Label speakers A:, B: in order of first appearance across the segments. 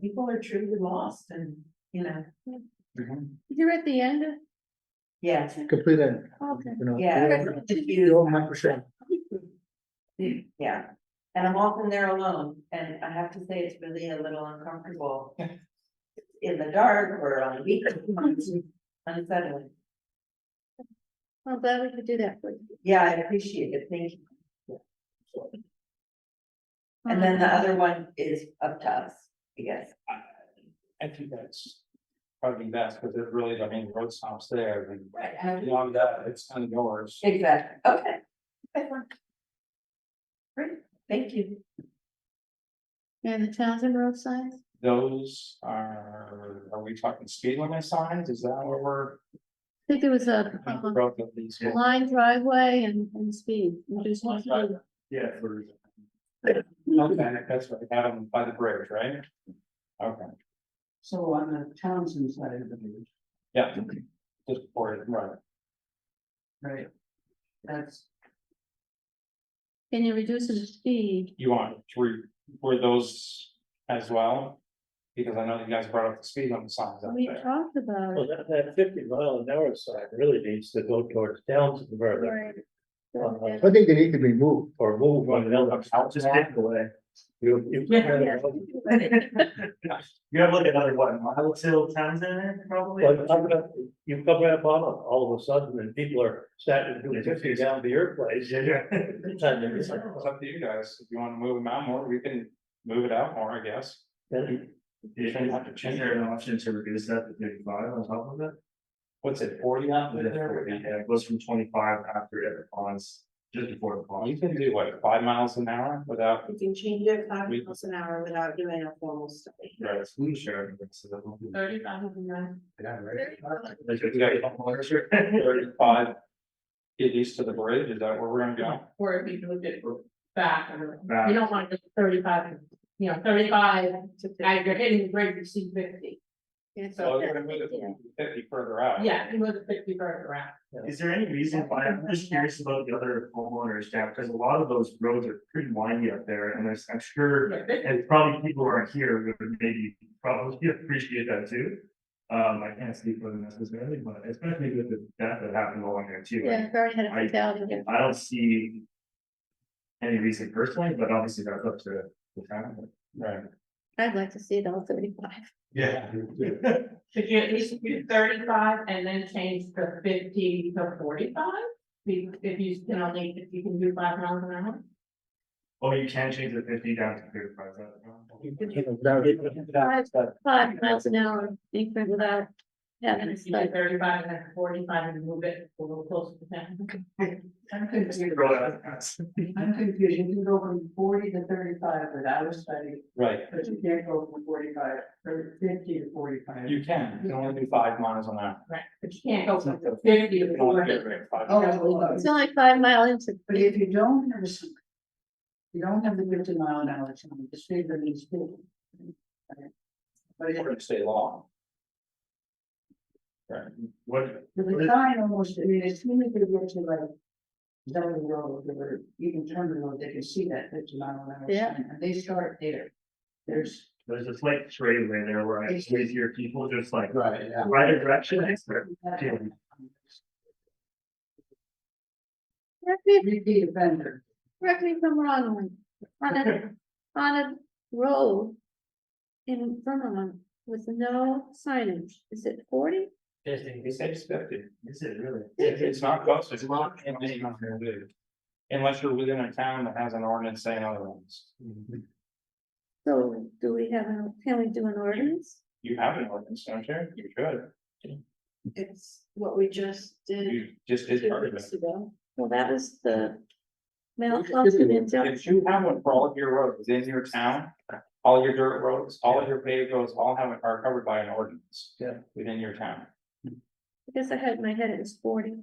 A: people are truly lost and, you know,
B: You're at the end, of-
A: yeah,
C: Complete end.
B: okay.
C: you know,
A: yeah.
C: you're-
A: it's just
C: You're
A: you.
C: all microsoft.
A: Yeah, and I'm often there alone, and I have to say, it's really a little uncomfortable. In the dark or on the weekend, unsettling,
B: I'm glad we could do that for you.
A: yeah, I appreciate it, thank you. And then the other one is up to us, I guess,
D: I think that's probably best, because it really, I mean, road stops there,
A: Right,
D: and
A: and-
D: beyond that, it's kind of yours.
A: exactly, okay. Good one. Great, thank you.
B: And the Townsend road signs,
D: Those are, are we talking speed limit signs, is that what we're?
B: I think there was a
D: we
B: uh,
D: broke up these?
C: Uh-huh.
B: line driveway and, and speed. We just want to-
D: Yeah. for- Okay, that's right, Adam, by the bridge, right? Okay,
E: So on the Townsend side of the bridge,
D: yeah, just for it, right,
E: right? That's,
B: Can you reduce the speed?
D: you want, were, were those as well? Because I know you guys brought up the speed limit signs out
B: We
D: there.
B: talked about
F: Well,
B: it.
F: that, that fifty mile an hour sign really needs to go towards Townsend further,
B: Right.
C: I think they need to be moved.
F: or move on the other.
D: Just take
F: away. You, you.
B: Yeah.
G: You have like another what, mile till Townsend there, probably?
F: Well, I'm gonna, you come right up on them all of a sudden, and people are starting to do fifty down to your place.
G: Yeah, yeah.
F: Sometimes
D: It's
F: it's
D: up
F: like,
D: it's up to you guys, if you wanna move them out more, we can move it out more, I guess.
F: then
G: Is is there an option to reduce that to thirty-five on top of it?
D: What's it, forty out
G: Yeah,
D: there?
G: It goes from twenty-five after it ponds, just before the
D: Well,
G: pond.
D: You can do what, five miles an hour without,
A: You can change it five
D: We-
A: miles an hour without doing a formal study.
D: right,
G: Who's sharing? this?
A: Thirty-five of nine.
G: Yeah, right.
D: Like, you got your homeownership, thirty-five. Get east to the bridge, is that where we're gonna go?
H: Or if you moved it back, or
G: Back.
H: you don't want to go thirty-five, you know, thirty-five, now you're hitting the bridge, you see fifty. And
D: So
H: so,
D: we're gonna move it fifty further out.
H: yeah, you move the fifty further around.
G: Is there any reason why, I'm just curious about the other homeowners down, because a lot of those roads are pretty windy up there, and there's, I'm sure.
H: Yeah, fifty,
G: And probably people who are here would maybe probably appreciate that too. Um, I can't speak for them necessarily, but especially with the death that happened along there too.
B: Yeah, very had a fatality.
G: I don't see. Any reason personally, but obviously that's up to the town.
D: Right.
B: I'd like to see it all thirty-five.
G: Yeah.
H: could you at least do thirty-five and then change the fifty to forty-five? If if you can only, if you can do five miles an hour?
G: Oh, you can change the fifty down to thirty-five.
C: You know, that-
B: Five miles an hour increment without having a
H: If you do
B: stop.
H: thirty-five and then forty-five and move it a little closer to ten.
E: I'm confused, I'm confused, you can go from forty to thirty-five without a study,
D: Right,
E: but you can't go from forty-five, or fifty to forty-five.
D: you can, you can only do five miles an hour.
H: Right, but you can't go from fifty
D: You
H: to
D: can only
H: forty.
D: get rid of five.
E: Oh, well,
B: It's only five mile into.
E: but if you don't have a. s- You don't have the fifty mile an hour sign, the speed limit is fifty. But
D: We're
E: if
D: gonna stay long. Right,
G: What,
E: the sign almost, I mean, as soon as they get to like. Down the road, or even turn the road, they can see that fifty mile an hour
B: Yeah.
E: sign, and they start there. There's.
G: there's this like trailway there where I raise your people just like
C: Right, yeah.
G: right direction. I swear.
B: Correct me if-
E: Repeat offender.
B: correct me if I'm wrong, on a, on a road. In Vermont with no signage, is it forty?
D: He says fifty.
G: Is it really?
D: If it's not close, it's not. it's not gonna do. Unless you're within a town that has an ordinance saying otherwise.
B: So do we have, an? can we do an ordinance?
D: You have an ordinance, don't you? You should.
A: It's what we just did.
D: You just did part of it.
B: Well, that was the.
C: It should
B: Mount
C: be
B: Pleasant
C: one.
D: If
B: injunction,
D: you have one for all of your roads in your town, all your dirt roads, all of your paved roads, all have, are covered by an ordinance.
F: Yeah.
D: Within your town.
B: I guess I had in my head, it was forty.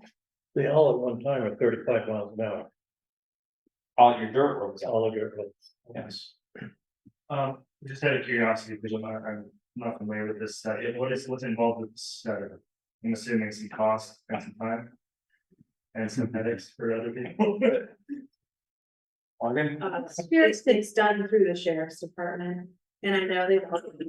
F: they all at one time are thirty-five miles an hour,
D: All your dirt roads,
F: all of your.
D: yes.
G: Um, just out of curiosity, because I'm not, I'm not familiar with this, uh, it- what is, what's involved with this, uh, I'm assuming some cost and some time. And some headaches for other people.
D: Oregon?
A: Uh, it's, it's done through the sheriff's department, and I know they've